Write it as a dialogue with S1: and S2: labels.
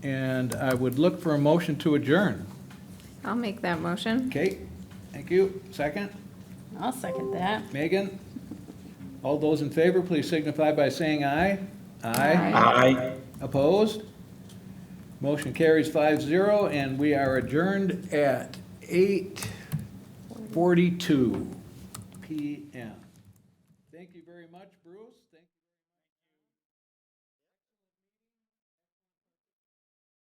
S1: And I would look for a motion to adjourn.
S2: I'll make that motion.
S1: Kate, thank you. Second,
S3: I'll second that.
S1: Megan? All those in favor, please signify by saying aye. Aye.
S4: Aye.
S1: Opposed? Motion carries five zero, and we are adjourned at eight forty-two PM. Thank you very much, Bruce. Thank-